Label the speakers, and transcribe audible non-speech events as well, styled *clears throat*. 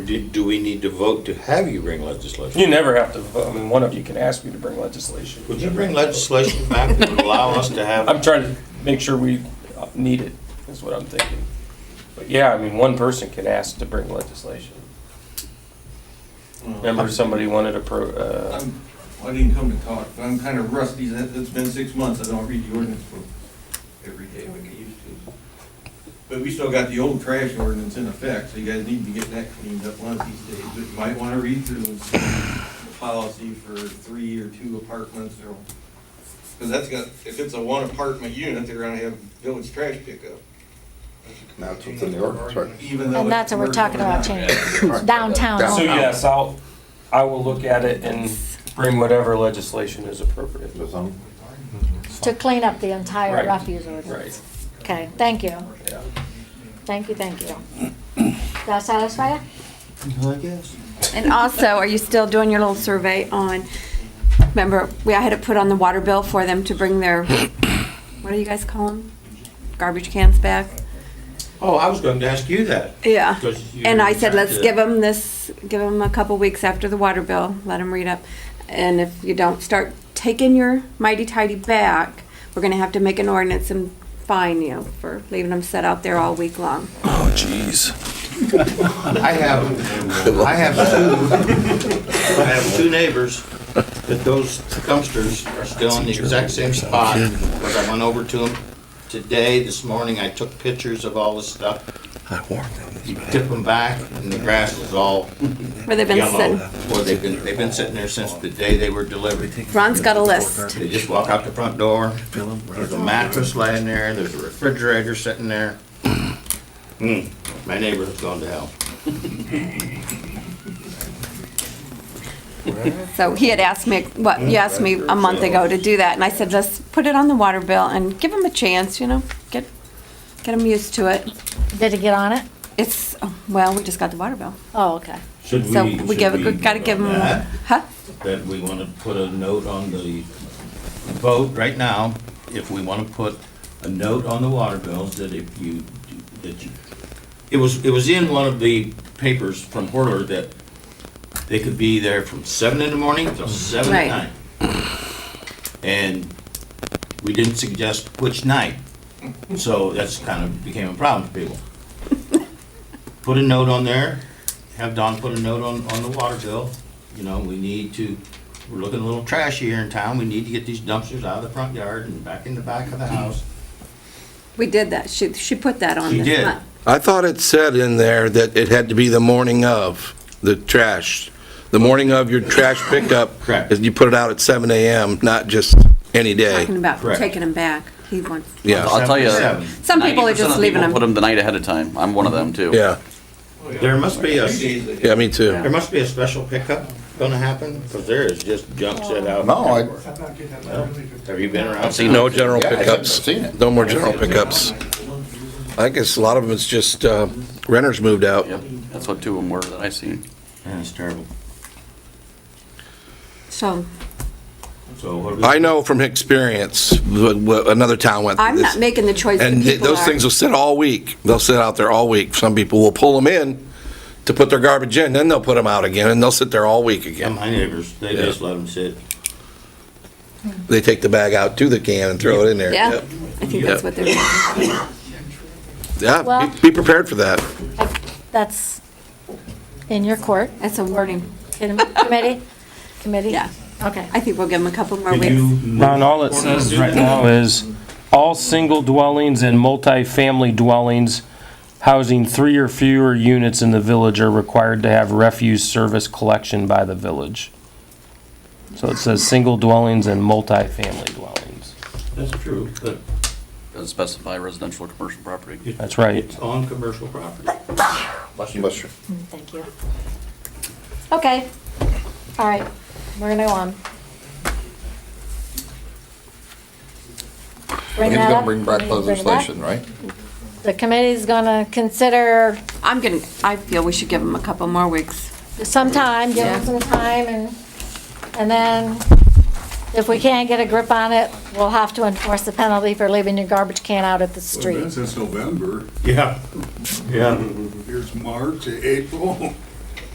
Speaker 1: do, do we need to vote to have you bring legislation?
Speaker 2: You never have to, vote. I mean, one of you can ask me to bring legislation.
Speaker 1: Would you bring legislation back that would allow us to
Speaker 2: I'm
Speaker 1: have?
Speaker 2: trying to make sure we need it, is what I'm thinking. But yeah, I mean, one person can ask to bring legislation. Remember, somebody wanted a pro, uh,
Speaker 3: I'm, I didn't come to talk, but I'm kind of rusty. That- It's been six months. I don't read the ordinance book every day like I used to. But we still got the old trash ordinance in effect, so you guys need to get that cleaned up one of these days. But you might want to read through and see the policy for three or two apartments or, because that's got, if it's a one apartment unit, they're gonna have village trash pickup.
Speaker 4: That's what's in the ordinance, right?
Speaker 3: Even though.
Speaker 5: And that's
Speaker 3: it's
Speaker 5: what we're talking about
Speaker 3: commercial or not.
Speaker 5: changing, *coughs* downtown.
Speaker 2: so
Speaker 4: Downtown.
Speaker 5: only.
Speaker 2: yes, I'll, I will look at it and bring whatever legislation is appropriate.
Speaker 4: That's on-
Speaker 5: To clean up the entire
Speaker 2: Right.
Speaker 5: refuse ordinance.
Speaker 2: Right,
Speaker 5: Okay, thank you,
Speaker 2: yeah.
Speaker 5: thank you, thank you. Does that satisfy you?
Speaker 6: And also, are you still doing your little survey on, remember, we, I had it put on the water bill for them to bring their, what do you guys call them? Garbage cans back?
Speaker 1: Oh, I was going to ask you that.
Speaker 6: Yeah.
Speaker 1: 'cause you
Speaker 6: And I said, let's
Speaker 1: rejected it.
Speaker 6: give them this, give them a couple weeks after the water bill, let them read up. And if you don't start taking your mighty tidy back, we're gonna have to make an ordinance and fine you for leaving them set out there all week long.
Speaker 4: Oh,
Speaker 1: I have, I have two, I have two neighbors that those dumpsters are still in the exact same spot. Because I went over to them today, this morning, I took pictures of all the stuff. I warned them. You tip them back and the grass is all
Speaker 6: Where they've been
Speaker 1: yellow.
Speaker 6: sitting.
Speaker 1: Well, they've been, they've been sitting there since the day they were delivered.
Speaker 6: Ron's got a list.
Speaker 1: They just walk out the front door, there's a mattress laying there, there's a refrigerator sitting
Speaker 6: *clears throat*
Speaker 1: there. Hmm, my neighbor's gone to hell.
Speaker 6: So he had asked me, what, you asked me a month ago to do that, and I said, let's put it on the water bill and give them a chance, you know, get, get them used to it.
Speaker 5: Did it get on it?
Speaker 6: It's, oh, well, we just got the water bill.
Speaker 5: Oh, okay.
Speaker 1: Should
Speaker 6: So we give, a gotta give them, huh?
Speaker 1: That we want to put a note on the vote right now, if we want to put a note on the water bills that if you, that you, it was, it was in one of the papers from Horler that they could be there from seven in the morning till seven at
Speaker 6: Right.
Speaker 1: night. And we didn't suggest which night, so that's kind of became a problem for people. Put a note on there, have Don put a note on, on the water bill, you know, we need to, we're looking a little trashy here in town, we need to get these dumpsters out of the front yard and back in the back of the house.
Speaker 6: We did that, she, she put that on
Speaker 1: She did.
Speaker 6: this month.
Speaker 4: I thought it said in there that it had to be the morning of the trash, the morning of your trash pickup.
Speaker 1: Correct.
Speaker 4: is You put it out at seven AM, not just any
Speaker 6: Talking
Speaker 4: day.
Speaker 6: about
Speaker 1: Correct.
Speaker 6: taking them back, he wants,
Speaker 4: Yeah,
Speaker 7: I'll tell you,
Speaker 1: Seven.
Speaker 6: some people are
Speaker 7: 90%
Speaker 6: just
Speaker 7: of
Speaker 6: leaving
Speaker 7: people Put
Speaker 6: them.
Speaker 7: them the night ahead of time. I'm one of them too.
Speaker 4: yeah,
Speaker 1: There must be a,
Speaker 3: Two days later.
Speaker 4: yeah, me
Speaker 1: there
Speaker 4: too.
Speaker 1: must be a special pickup gonna happen, because there is just junk set out.
Speaker 8: No, I-
Speaker 1: everywhere. Have you been around?
Speaker 7: I've seen
Speaker 4: No general
Speaker 8: Yeah, I haven't
Speaker 4: pickups,
Speaker 8: seen it.
Speaker 4: no more general pickups. I guess a lot of them is just uh, renters moved out.
Speaker 7: Yep, that's what two of them were that I seen.
Speaker 1: Yeah, it's terrible.
Speaker 6: So,
Speaker 1: So what do we?
Speaker 4: I know from experience, what- what another town went
Speaker 6: I'm
Speaker 4: through this.
Speaker 6: not making the choice that
Speaker 4: And th-
Speaker 6: people
Speaker 4: those
Speaker 6: are.
Speaker 4: things will sit all week. They'll sit out there all week. Some people will pull them in to put their garbage in, then they'll put them out again, and they'll sit there all week
Speaker 1: Yeah,
Speaker 4: again.
Speaker 1: my neighbors, they
Speaker 4: Yeah.
Speaker 1: just let them sit.
Speaker 4: They take the bag out to the can and throw it in there.
Speaker 6: Yeah,
Speaker 4: Yep.
Speaker 6: I think that's
Speaker 4: Yep.
Speaker 6: what they're doing.
Speaker 4: Yeah,
Speaker 5: Well-
Speaker 4: be- be prepared for that.
Speaker 5: That's in your court,
Speaker 6: That's a warning.
Speaker 5: in committee, committee?
Speaker 6: Yeah.
Speaker 5: Okay.
Speaker 6: I think we'll give them a couple more
Speaker 1: Could
Speaker 6: weeks.
Speaker 1: you
Speaker 2: Ron, all it says right now is, all single dwellings and multifamily dwellings housing three or fewer units in the village are required to have refuse service collection by the village. So it says single dwellings and multifamily dwellings.
Speaker 1: That's true, but
Speaker 7: Doesn't specify residential or commercial property.
Speaker 2: That's right.
Speaker 1: it's on commercial property.
Speaker 8: Bless you.
Speaker 5: Thank you. Okay, all right, we're gonna go on. Bring
Speaker 8: He's
Speaker 5: that
Speaker 8: gonna
Speaker 5: up.
Speaker 8: bring back
Speaker 5: Can you bring that?
Speaker 8: legislation, right?
Speaker 5: The committee's gonna consider
Speaker 6: I'm gonna, I feel we should give them a couple more weeks.
Speaker 5: some time, give them
Speaker 6: Yeah.
Speaker 5: some time, and, and then if we can't get a grip on it, we'll have to enforce the penalty for leaving your garbage can out at the
Speaker 9: Well,
Speaker 5: street.
Speaker 9: That's since November,
Speaker 1: Yeah, yeah.
Speaker 9: here's March, April,